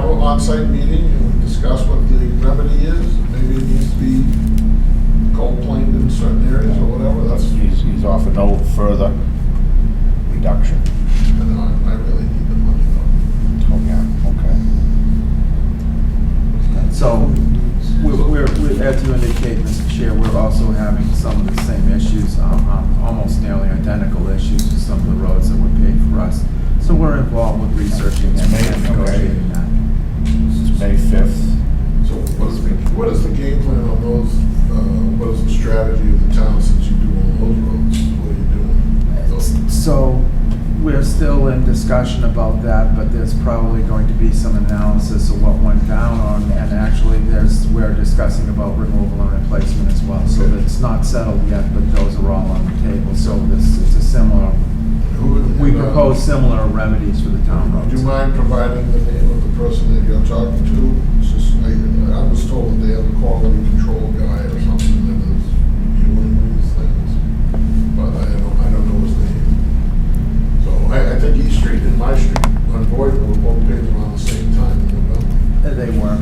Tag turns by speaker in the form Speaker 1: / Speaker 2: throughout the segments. Speaker 1: oversight meeting and discuss what the remedy is. Maybe it needs to be complained in certain areas or whatever, that's,
Speaker 2: He's, he's offered no further reduction.
Speaker 1: and I I really need the money though.
Speaker 2: Oh, yeah, okay.
Speaker 3: So we're, we're, we're- as you indicate, Mr. Chair, we're also having some of the same issues, um, um, almost nearly identical issues with some of the roads that were paid for us. So we're involved with researching and- and
Speaker 2: Amazing, okay.
Speaker 3: negotiating that.
Speaker 2: This is May 5th.
Speaker 1: So what is, the what is the game plan on those, uh, what is the strategy of the town since you do all those roads? What are you doing? Those-
Speaker 3: So we're still in discussion about that, but there's probably going to be some analysis of what went down on, and actually there's, we're discussing about removal and replacement as well. So
Speaker 1: Okay.
Speaker 3: it's not settled yet, but those are all on the table, so this, it's a similar,
Speaker 1: who would-
Speaker 3: we propose similar remedies for the town
Speaker 1: Would you
Speaker 3: roads.
Speaker 1: mind providing the name of the person that you're talking to? It's just, I, I was told that they have a quality control guy or something that is doing these things, but I don't, I don't know his name. So I, I think East Street and my street on Boyden were both paved around the same time in November.
Speaker 3: Uh, They were,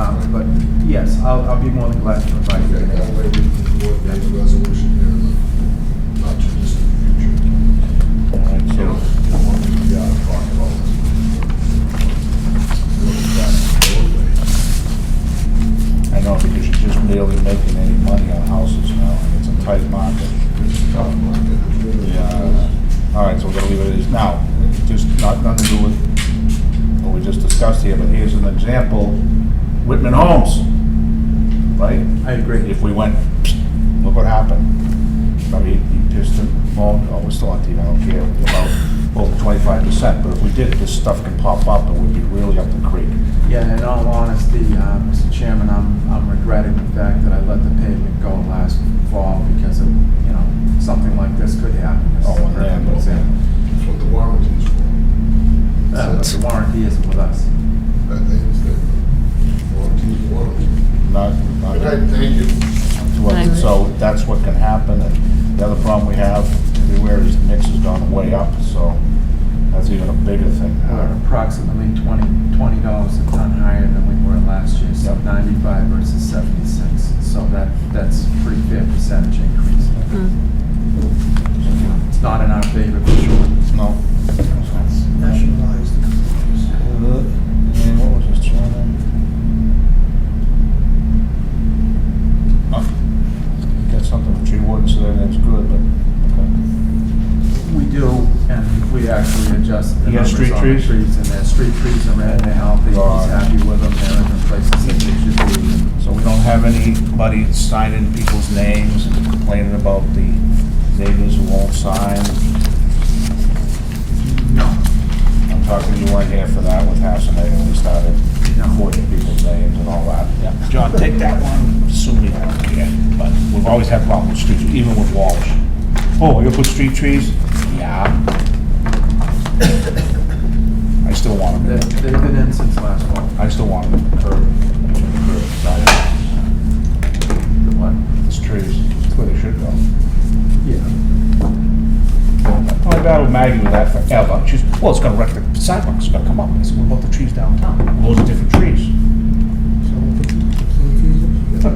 Speaker 3: um, but yes, I'll, I'll be more than glad to provide you
Speaker 1: Okay,
Speaker 3: with
Speaker 1: that
Speaker 3: that.
Speaker 1: way we can coordinate a resolution here in the not too distant future.
Speaker 2: All right,
Speaker 1: You know,
Speaker 2: so
Speaker 1: you don't want to be out of pocket all this. Go back the roadway.
Speaker 2: I know, because you're just barely making any money on houses now, and it's a tight market.
Speaker 1: Tough market. it really
Speaker 2: Yeah.
Speaker 1: is.
Speaker 2: All right, so we're gonna leave it as now, just not, nothing to do with what we just discussed here, but here's an example, Whitman Homes, right?
Speaker 3: I agree.
Speaker 2: If we went, psst, look what happened. I mean, he pissed and moaned, oh, we're still on TV, I don't care about over twenty-five percent, but if we did, this stuff can pop up and we'd be really up the creek.
Speaker 3: Yeah, in all honesty, uh, Mr. Chairman, I'm I'm regretting the fact that I let the pavement go last fall because of, you know, something like this could happen. This is a
Speaker 2: Oh, and
Speaker 3: perfect
Speaker 2: then-
Speaker 3: example.
Speaker 1: That's what the warranty is for.
Speaker 3: Uh, But the warranty isn't with us.
Speaker 1: That means that warranty is warranty.
Speaker 2: Not, not.
Speaker 1: Good night, thank you.
Speaker 2: to us. So that's what can happen, and the other problem we have everywhere is the mix has gone way up, so that's even a bigger thing.
Speaker 3: We're approximately 20 $20 a ton higher than we were last year, so
Speaker 2: Yep.
Speaker 3: 95 versus 76. So that that's a pretty fair percentage increase.
Speaker 4: Mm.
Speaker 3: It's not in our favor for sure.
Speaker 2: No.
Speaker 5: nationalized the companies.
Speaker 2: And what was his channel? Oh, Got something with tree warden, so that's good, but, okay.
Speaker 3: We do, and we actually adjust the
Speaker 2: You got
Speaker 3: numbers
Speaker 2: street
Speaker 3: on the
Speaker 2: trees?
Speaker 3: trees, and their street trees are red, they're healthy, he's
Speaker 2: Right.
Speaker 3: happy with them, they're in the places that they should be.
Speaker 2: So we don't have anybody signing people's names and complaining about the neighbors who won't sign?
Speaker 3: No,
Speaker 2: I'm talking, you weren't here for that with Hassanay when we started
Speaker 3: No.
Speaker 2: recording people's names and all that. John, take that one, assuming you don't care, but we've always had problems with street, even with Walsh. Oh, you put street trees? Yeah. I still want
Speaker 3: they-
Speaker 2: them,
Speaker 3: they've been in since last fall.
Speaker 2: I still want them curb, curb, side,
Speaker 3: What?
Speaker 2: those trees, that's where they should go.
Speaker 3: Yeah.
Speaker 2: I battled Maggie with that forever. She's, well, it's gonna wreck the sidewalks, it's gonna come up. I said, what about the trees downtown? Those are different trees.
Speaker 5: So we'll put the same trees up.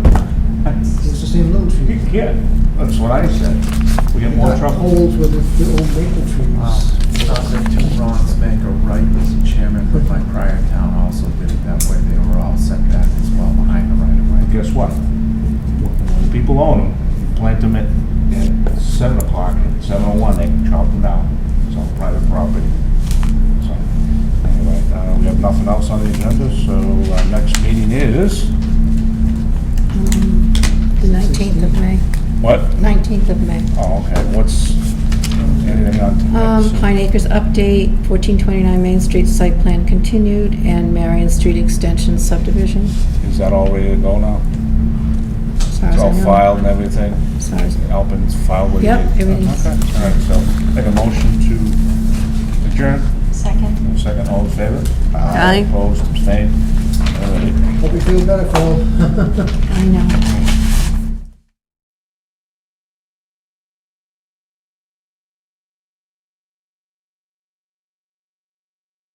Speaker 5: It's the same little tree.
Speaker 2: Yeah, that's what I said. We get more
Speaker 5: Got
Speaker 2: trouble.
Speaker 5: Holes with the the old maple
Speaker 3: Wow,
Speaker 5: trees.
Speaker 3: sounds like two wrongs make a right, Mr. Chairman, but my prior town also did it that way, they were all set back as well behind the right of way.
Speaker 2: And guess what? When People own them, you plant them at, at seven o'clock, at seven oh one, they can chop them down. It's on private property. So, anyway, uh, we have nothing else on the agenda, so our next meeting is,
Speaker 4: The 19th Mm. of May,
Speaker 2: what?
Speaker 4: 19th of May.
Speaker 2: Oh, okay, what's, anything on?
Speaker 4: Um, Pine Acres update, 1429 Main Street site plan continued, and Marion Street extension subdivision.
Speaker 2: Is that all ready to go now?
Speaker 4: As far as
Speaker 2: It's
Speaker 4: I
Speaker 2: all
Speaker 4: know.
Speaker 2: filed and everything?
Speaker 4: As far as-
Speaker 2: Alpin's filed with you?
Speaker 4: Yep, everything's-
Speaker 2: Okay, all right, so make a motion to adjourn.
Speaker 6: Second.
Speaker 2: Any Second, all in favor?
Speaker 4: Aye.
Speaker 2: Opposed, abstained? All right.
Speaker 5: Hope you feel better, Cole.
Speaker 4: I know.